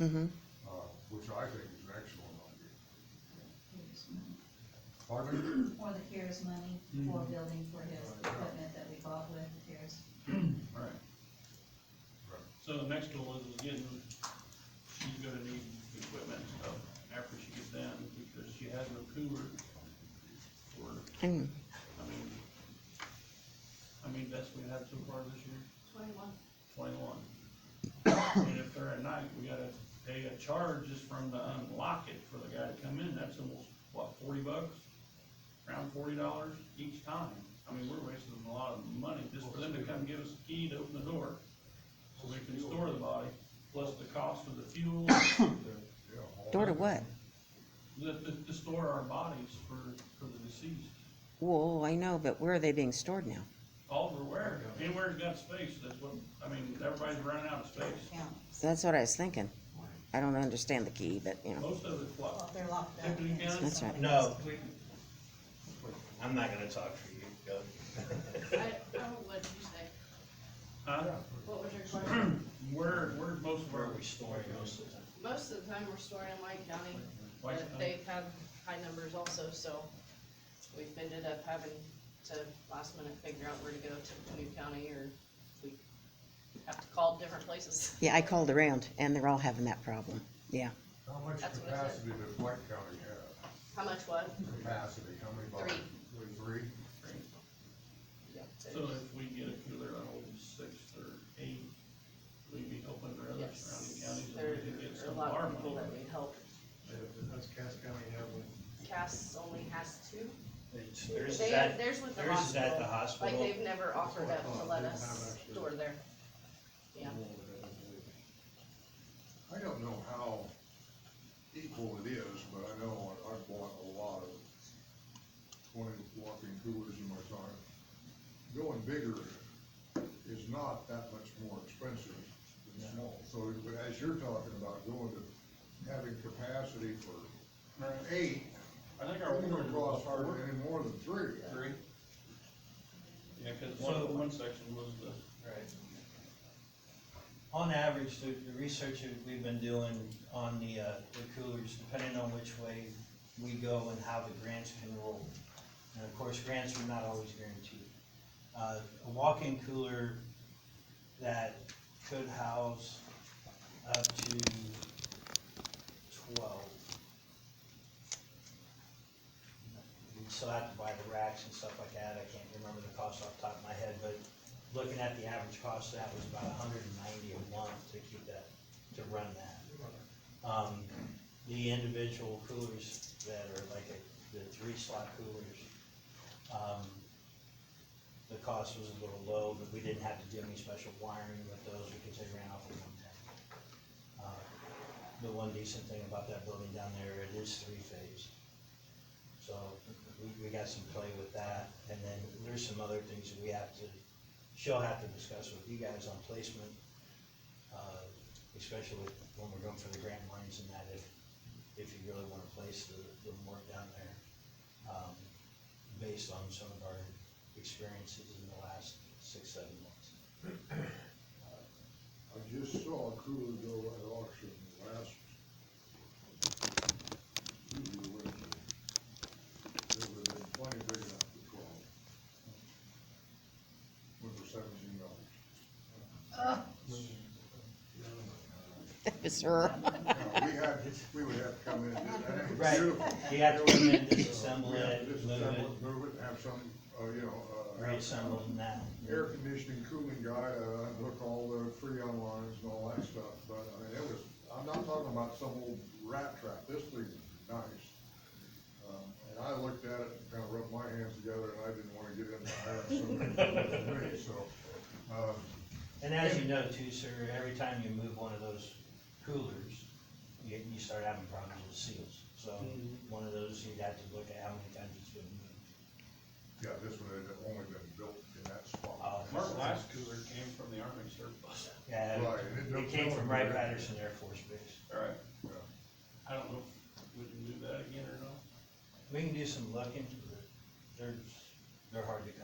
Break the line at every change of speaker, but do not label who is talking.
Mm-hmm.
uh, which I think is an excellent idea. Pardon?
For the CARES money, for building for his equipment that we bought with the CARES.
Right.
Right.
So the next goal is, again, she's gonna need equipment and stuff after she gets down, because she has no cooler for,
And
I mean, I mean, best we have so far this year,
Twenty-one.
twenty-one. And if they're at night, we gotta pay a charge just from the unlock it for the guy to come in, that's almost, what, forty bucks? Around forty dollars each time, I mean, we're wasting a lot of money just for them to come give us a key to open the door. So we can store the body, plus the cost of the fuel,
Yeah, all
door to
that.
what?
the, the, to store our bodies for, for the deceased.
Well, I know, but where are they being stored now?
All over where, anywhere's got space, that's what, I mean, everybody's running out of space,
Yeah,
So that's what I was thinking. I don't understand the key, but, you know,
most of it's
well,
what,
they're locked up.
Tiffany
yeah, so
County?
That's right.
No, we- I'm not gonna talk for you, go.
I, I don't let you say,
huh?
what was your question?
Where, where's most of
Where
our,
are we storing most of them?
Most of the time, we're storing in Lake County,
Lake
but
County.
they've had high numbers also, so we've ended up having to last minute figure out where to go to New County, or we have to call different places.
yeah, I called around and they're all having that problem. Yeah.
How much
That's what I said.
capacity does White County have?
How much what?
Capacity, how many bodies? Three. Three?
Yep,
so if we get a cooler on old sixth or eight, we'd be hoping for other surrounding
Yes,
counties
there
that we could get
are a
some
lot of
arm
people
over.
that need help.
That's Cass County have one.
Cass only has two.
It's- Theirs
They-
is at,
theirs with the
theirs is at the
Like,
hospital,
they've never offered up to let us store there. Yeah.
I don't know how equal it is, but I know I- I've bought a lot of twenty walking coolers in my time. Going bigger is not that much more expensive than small. So but as you're talking about going to having capacity for
Right.
eight,
I think our
you're
order
gonna
was
cross
four.
hardly any more than three.
Three? Yeah, cause one,
So-
one section was the,
right. On average, the, the research that we've been doing on the, uh, the coolers, depending on which way we go and how the grants can roll. And of course, grants are not always guaranteed. Uh, a walk-in cooler that could house up to twelve. We still have to buy the racks and stuff like that, I can't remember the cost off the top of my head, but looking at the average cost, that was about hundred and ninety a month to keep that, to run that. Um, the individual coolers that are like a- the three slot coolers, um, the cost was a little low, but we didn't have to do any special wiring with those, because they ran off of one tank. Uh, The one decent thing about that building down there, it is three-phase. So we, we got some play with that, and then there's some other things that we have to, she'll have to discuss with you guys on placement, uh, especially with, when we're going for the grant lines and that, if, if you really wanna place the, the work down there, um, based on some of our experiences in the last six, seven months.
I just saw a cooler go at auction last. Tuesday, Wednesday. There would have been plenty big enough for twelve. Went for seventeen dollars.
That was her.
Now, we had, we would have to come in and do that. It was
Right.
beautiful.
You have to come in, disassemble
We have
it,
to
move
disassemble it,
it,
move it, and have some, uh, you know, uh. have some
reassemble it now.
Air conditioning, cooling guy, uh, look all the freon lines and all that stuff, but I mean, it was, I'm not talking about some old rat trap, this thing is nice. Um, and I looked at it and kinda rubbed my hands together and I didn't wanna get in the iron, so, me, so, um,
And as you know too, sir, every time you move one of those coolers, you, you start having problems with seals. So one of those, you'd have to look at how many times it's been moved.
yeah, this one had only been built in that spot.
Oh,
our last cooler came from the army surplus.
Yeah,
Right, and it don't
it came
go
from Wright
anywhere.
Patterson Air Force Base.
Alright.
Yeah.
I don't know if we can do that again or not.
We can do some looking, but they're, they're hard to come